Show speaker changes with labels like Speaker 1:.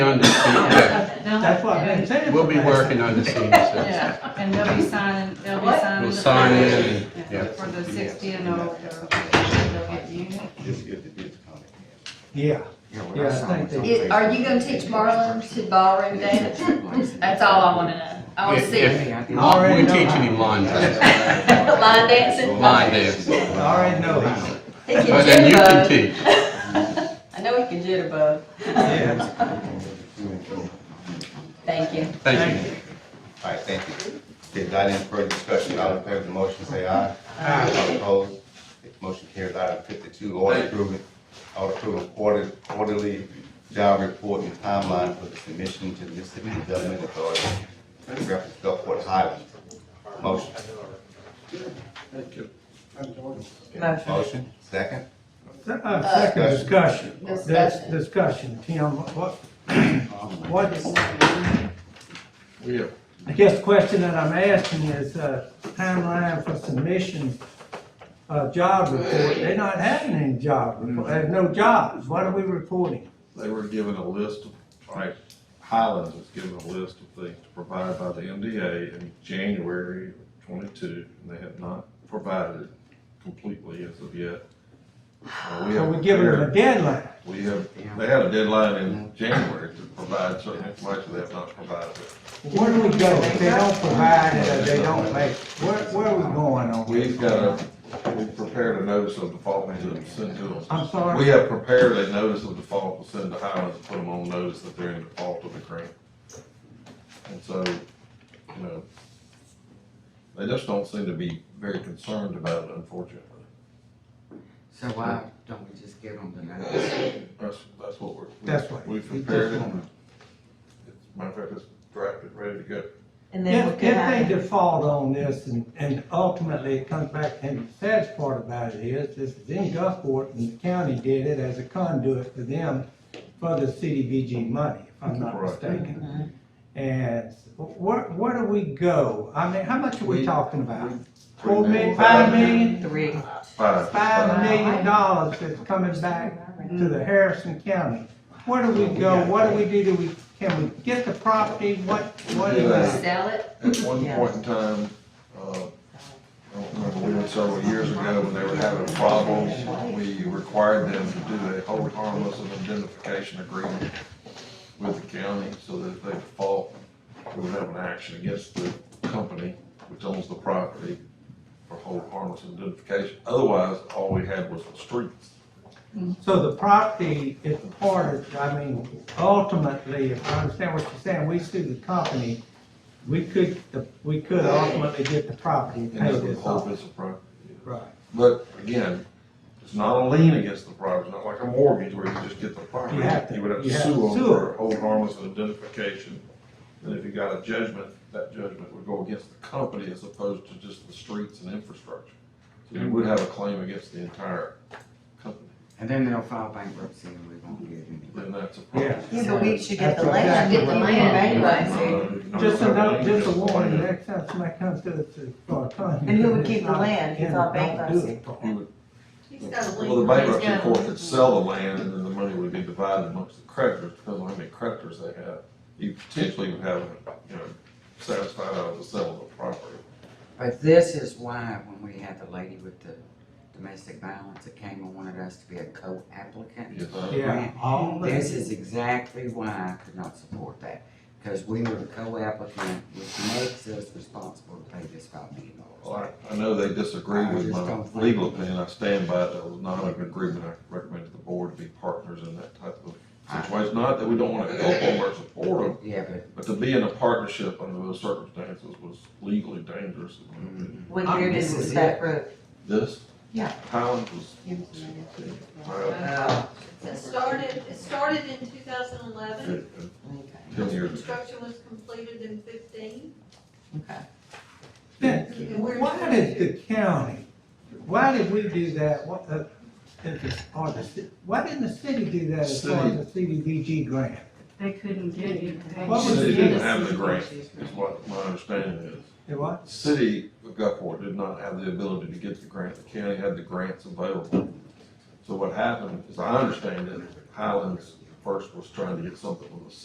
Speaker 1: on the same,
Speaker 2: That's what I've been saying.
Speaker 1: we'll be
Speaker 2: for the last-
Speaker 1: working on the same stuff.
Speaker 3: Yeah, and they'll be signing, they'll be
Speaker 4: What?
Speaker 3: signing.
Speaker 1: We'll
Speaker 3: the
Speaker 1: sign in,
Speaker 3: foundation,
Speaker 1: and-
Speaker 3: yeah,
Speaker 1: yeah.
Speaker 3: For the sixty and over, they'll get the unit.
Speaker 5: Just get the discount.
Speaker 2: Yeah, Yeah, I think they-
Speaker 4: It- Are you gonna teach Marlon to ballroom dance? That's all I wanna know. I wanna
Speaker 1: If-
Speaker 4: see
Speaker 1: if-
Speaker 4: it.
Speaker 1: We're teaching him line dance,
Speaker 4: Line dancing?
Speaker 1: line dance,
Speaker 2: I already know how.
Speaker 4: He can
Speaker 1: but then you can
Speaker 4: jitterbug.
Speaker 1: teach.
Speaker 4: I know he can jitterbug.
Speaker 2: Yeah,
Speaker 4: Thank you.
Speaker 1: Thank you.
Speaker 5: All right, thank you. Did that in further discussion, all in favor of the motion, say aye.
Speaker 2: Aye.
Speaker 5: All opposed, motion carries item fifty-two, order approving, order approving quarter- quarterly job report and timeline for the submission to the Mississippi Development Authority. Reference Gulfport Highlands. Motion.
Speaker 4: Motion.
Speaker 5: Motion, second.
Speaker 2: Uh, second discussion, that's
Speaker 4: Discussion.
Speaker 2: discussion, Tim, what, what,
Speaker 1: Yeah.
Speaker 2: I guess the question that I'm asking is, uh, timeline for submission of job report, they're not having any job report, there's no jobs, what are we reporting?
Speaker 6: They were given a list of, like, Highlands was given a list of things to provide by the MDA in January twenty-two, and they have not provided it completely as of yet. Uh,
Speaker 2: So
Speaker 6: have
Speaker 2: we're giving them a deadline,
Speaker 6: We have, they had a deadline in January to provide certain information, they have not provided it.
Speaker 2: where do we go if they don't provide it, or they don't make, where, where are we going on?
Speaker 6: We've got a, we've prepared a notice of default to send to them.
Speaker 2: I'm sorry?
Speaker 6: We have prepared a notice of default to send to Highlands and put them on notice that they're in default of the grant. And so, you know, they just don't seem to be very concerned about it unfortunately.
Speaker 7: So why don't we just give them the notice?
Speaker 6: That's, that's what we're.
Speaker 2: That's what-
Speaker 6: We've prepared it. It's, matter of fact, it's drafted, ready to go.
Speaker 4: And then we
Speaker 2: If,
Speaker 4: can
Speaker 2: if
Speaker 4: have.
Speaker 2: they default on this and, and ultimately it comes back, and the saddest part about it is, this is in Gulfport and the county did it as a conduit for them for the CDBG money, if I'm not
Speaker 6: Right.
Speaker 2: mistaken.
Speaker 4: Mm-hmm.
Speaker 2: And where, where do we go? I mean, how much are we
Speaker 6: We-
Speaker 2: talking about?
Speaker 6: we-
Speaker 2: Four million, five million,
Speaker 4: Three.
Speaker 6: Five.
Speaker 2: five million dollars that's coming back to the Harrison County. Where do we go? What do we do? Do we, can we get the property? What, what is
Speaker 6: Yeah.
Speaker 2: that?
Speaker 4: Sell it?
Speaker 6: At one point in time, uh, I don't remember, we went several years ago when they were having problems. We required them to do a hold harmless and indemnification agreement with the county so that if they default, we would have an action against the company which owns the property for hold harmless and indemnification. Otherwise, all we had was the streets.
Speaker 2: So the property is part of, I mean, ultimately, if I understand what you're saying, we sue the company, we could, we could ultimately get the property and
Speaker 6: And
Speaker 2: pay
Speaker 6: that's the
Speaker 2: this
Speaker 6: whole
Speaker 2: off.
Speaker 6: piece of property.
Speaker 2: Right.
Speaker 6: But again, it's not a lien against the property, it's not like a mortgage where you just get the property.
Speaker 2: You have to-
Speaker 6: would have to
Speaker 2: you have
Speaker 6: sue
Speaker 2: to
Speaker 6: them
Speaker 2: sue
Speaker 6: for hold harmless and indemnification. And if you got a judgment, that judgment would go against the company as opposed to just the streets and infrastructure. So you would have a claim against the entire company,
Speaker 7: And then they'll file bankruptcy and we won't get any.
Speaker 6: then that's a problem.
Speaker 2: Yeah.
Speaker 8: Yeah, but we should get the
Speaker 2: That's
Speaker 8: land.
Speaker 2: exactly
Speaker 4: Get the
Speaker 2: what-
Speaker 4: land anyway.
Speaker 6: Uh, you know,
Speaker 2: Just a note, just a
Speaker 6: the
Speaker 2: warning,
Speaker 6: land,
Speaker 2: next time somebody comes to, to, for a condo.
Speaker 8: And who would keep the land? It's all bankruptcy.
Speaker 6: You would, well, the bankruptcy court could sell the land and then the money would be divided amongst the creditors, depending on how many creditors they have. You potentially would have, you know, satisfied out of the sale of the property.
Speaker 7: But this is why when we had the lady with the domestic violence, it came and wanted us to be a co-applicant.
Speaker 6: Yes.
Speaker 7: for a
Speaker 2: Yeah,
Speaker 7: grant.
Speaker 2: all of
Speaker 7: This
Speaker 2: it.
Speaker 7: is exactly why I could not support that, because we were the co-applicant, which makes us responsible to pay this five million
Speaker 6: Well,
Speaker 7: dollars.
Speaker 6: I, I know they disagree
Speaker 7: I
Speaker 6: with
Speaker 7: just
Speaker 6: my
Speaker 7: don't think-
Speaker 6: legal opinion, I stand by it, that was not an agreement, I recommend to the board to be partners in that type of situation. Not that we don't wanna help them or support them,
Speaker 7: Yeah, but
Speaker 6: but to be in a partnership under those circumstances was legally dangerous. in my
Speaker 7: Mm-hmm.
Speaker 6: opinion.
Speaker 8: What year did
Speaker 7: This
Speaker 8: we
Speaker 7: is
Speaker 8: start road?
Speaker 6: This?
Speaker 8: Yeah.
Speaker 6: Highland was. Well,
Speaker 9: It started, it started in two thousand eleven,
Speaker 6: Ten years ago.
Speaker 9: construction was completed in fifteen.
Speaker 8: Okay.
Speaker 2: Then,
Speaker 9: And we're-
Speaker 2: Why did the county, why did we do that? What, uh, if it's- or the ci- why didn't the city do that as far as the CDBG grant?
Speaker 3: They couldn't get it. They
Speaker 2: What was
Speaker 3: couldn't
Speaker 2: the-
Speaker 6: City
Speaker 3: get
Speaker 6: didn't
Speaker 3: a
Speaker 6: have the
Speaker 3: CDBG
Speaker 6: grant, is what my understanding is.
Speaker 2: It was?
Speaker 6: The City of Gulfport did not have the ability to get the grant, the county had the grants available. So what happened, as I understand it, Highlands first was trying to get something from the